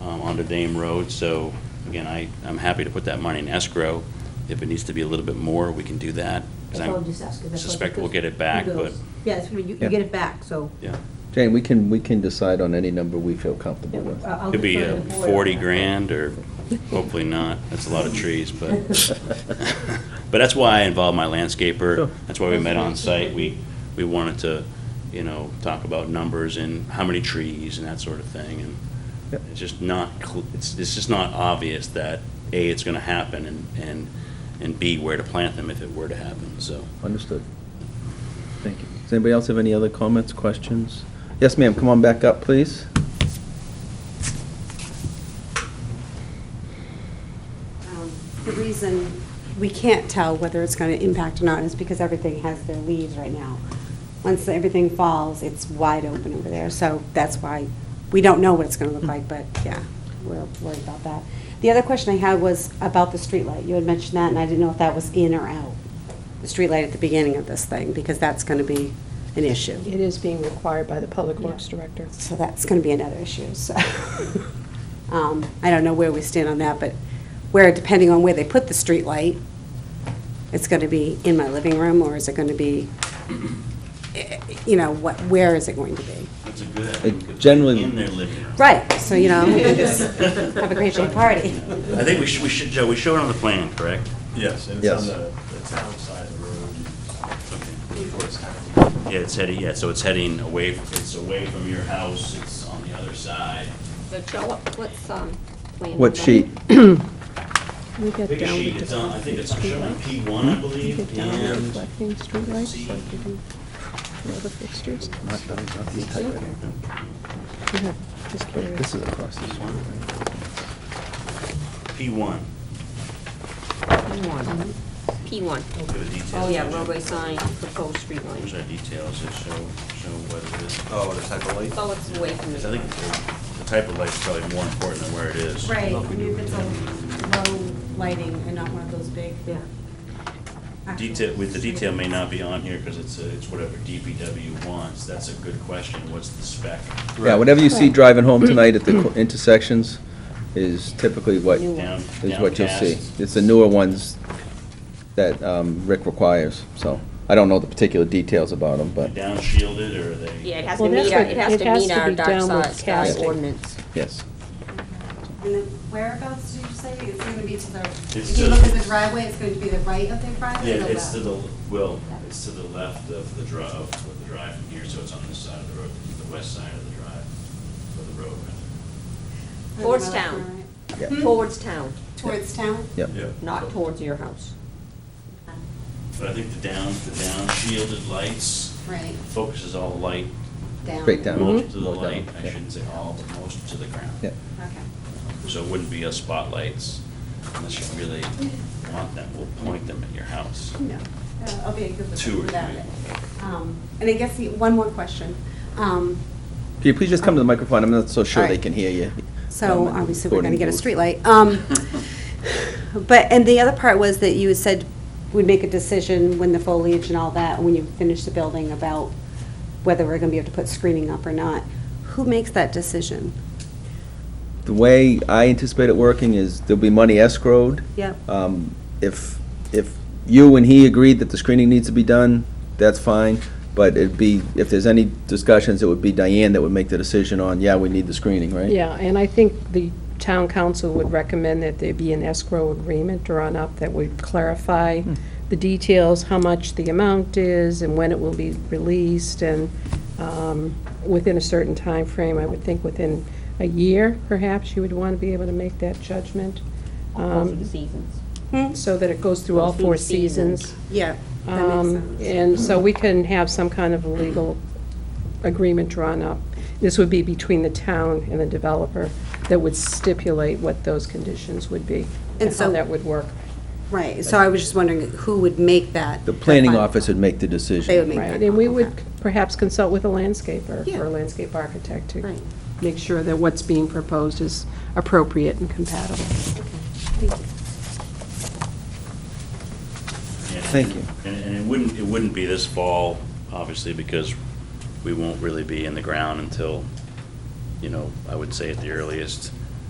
um, onto Dame Road. So again, I, I'm happy to put that money in escrow. If it needs to be a little bit more, we can do that. 'cause That's I'm- all I'm just asking. That's all, Suspect we'll because get it back, who but, knows? Yeah, it's, you, you Yeah. get it back, so. yeah. Jane, we can, we can decide on any number we feel comfortable with. I'll- I'll Could be defer uh, to the board on 40 that. grand, or hopefully not. That's a lot of trees, but, but that's why I involved my landscaper. Sure. That's why we met on site. We, we wanted to, you know, talk about numbers and how many trees and that sort of thing. And Yep. it's just not, cl- it's, it's just not obvious that, A, it's going to happen, and, and, and B, where to plant them if it were to happen, so. Understood. Thank you. Does anybody else have any other comments, questions? Yes, ma'am, come on back up, please. Um, The reason we can't tell whether it's going to impact or not is because everything has their leaves right now. Once everything falls, it's wide open over there, so that's why we don't know what it's going to look like, but yeah, we're worried about that. The other question I had was about the streetlight. You had mentioned that, and I didn't know if that was in or out, the streetlight at the beginning of this thing, because that's going to be an issue. It is being required by the Public Works Yeah. Director. So that's going to be another issue, so. Um, I don't know where we stand on that, but where, depending on where they put the streetlight, it's going to be in my living room, or is it going to be, eh, you know, what, where is it going to be? That's a good It generally- in their living room. Right, so, you know, have a great big party. I think we should, we should, Joe, we show it on the plan, correct? Yes, and it's Yes. on the, the town side of the road, towards town. Yeah, it's heading, yeah, so it's heading away, it's away from your house, it's on the other side. So Joe, what- what's, um, plan? What number? sheet? We get Big down sheet, with it's on, I think it's deflecting shown on lights. P one, I We believe, get down with and deflecting streetlights, see. like you do for other fixtures. Not done, not these type of- You have- Just curious. This is across the street. P one. P1. P1. Look at the details. Oh, yeah, roadway sign, proposed street Those are line. details that show, show what it is. Oh, the type of light? Oh, it's away from the. 'Cause I think the- the type of light's probably more important than where it is. Right, I mean, if it's a low lighting and not one of those big. Yeah. actual Detail, with the street- detail may not be on here, because it's, a- it's whatever DPW wants, that's a good question, what's the spec? Yeah, whatever you see driving home tonight at the co- intersections is typically what, New is Down- what you'll see. downcast. It's the newer ones that um, Rick requires, so. I don't know the particular details about them, but, Downshielded, or are they? Yeah, it has Well, to meet that's our, what- it has it to has meet to our be dark downward side sky casting. ordinance. yes. And then whereabouts did you say it's going to be to the, It's if you to- look at the driveway, it's going to be the right of the driveway? Yeah, or the it's to left? the, well, it's to the left of the drive, of the drive from here, so it's on this side of the road, the west side of the drive, of the road, rather. Or the Towards left town. corner, right? Hmm? Yeah. Hmm. Towards town, Towards town? Yep. Yeah. not towards your house. But I think the down, the down shielded lights Right, focuses all the light, down. Straight down. most of the More down, light, I yeah. shouldn't say all, but most to the ground. Yeah. Okay. So it wouldn't be a spotlights unless you really want them, we'll point them at your house. No. Uh, I'll be a good Two or listener without three. it. Um, And I guess, the- one more question. Um, Can you please just come to the microphone? I'm not so sure All they right. can hear you. So Um, obviously, we're going to get a recording streetlight. Um, But, and the other part was that you had said we'd make a decision when the foliage and all that, when you finish the building, about whether we're going to be able to put screening up or not. Who makes that decision? booth. The way I anticipate it working is there'll be money escrowed. Yep. Um, If, if you and he agreed that the screening needs to be done, that's fine, but it'd be, if there's any discussions, it would be Diane that would make the decision on, yeah, we need the screening, right? Yeah, and I think the town council would recommend that there be an escrow agreement drawn up that would clarify the details, how much the amount is, and when it will be released, and um, within a certain time frame. I would think within a year, perhaps, you would want to be able to make that judgment, um, Those are the seasons. so that it goes through all Goes through four the seasons. seasons. Yeah. That makes Um, sense. And so we can have some kind of a legal agreement drawn up. This would be between the town and the developer that would stipulate what those conditions would be and And how so- that would work. Right, so I was just wondering who would make that? The planning that final- office would make the decision. They would make that. Right, and we would okay. perhaps consult with a landscaper Yeah. or a landscape architect to Right. make sure that what's being proposed is appropriate and compatible. And- Thank you. And, and it wouldn't, it wouldn't be this fall, obviously, because we won't really be in the ground until, you know, I would say at the earliest,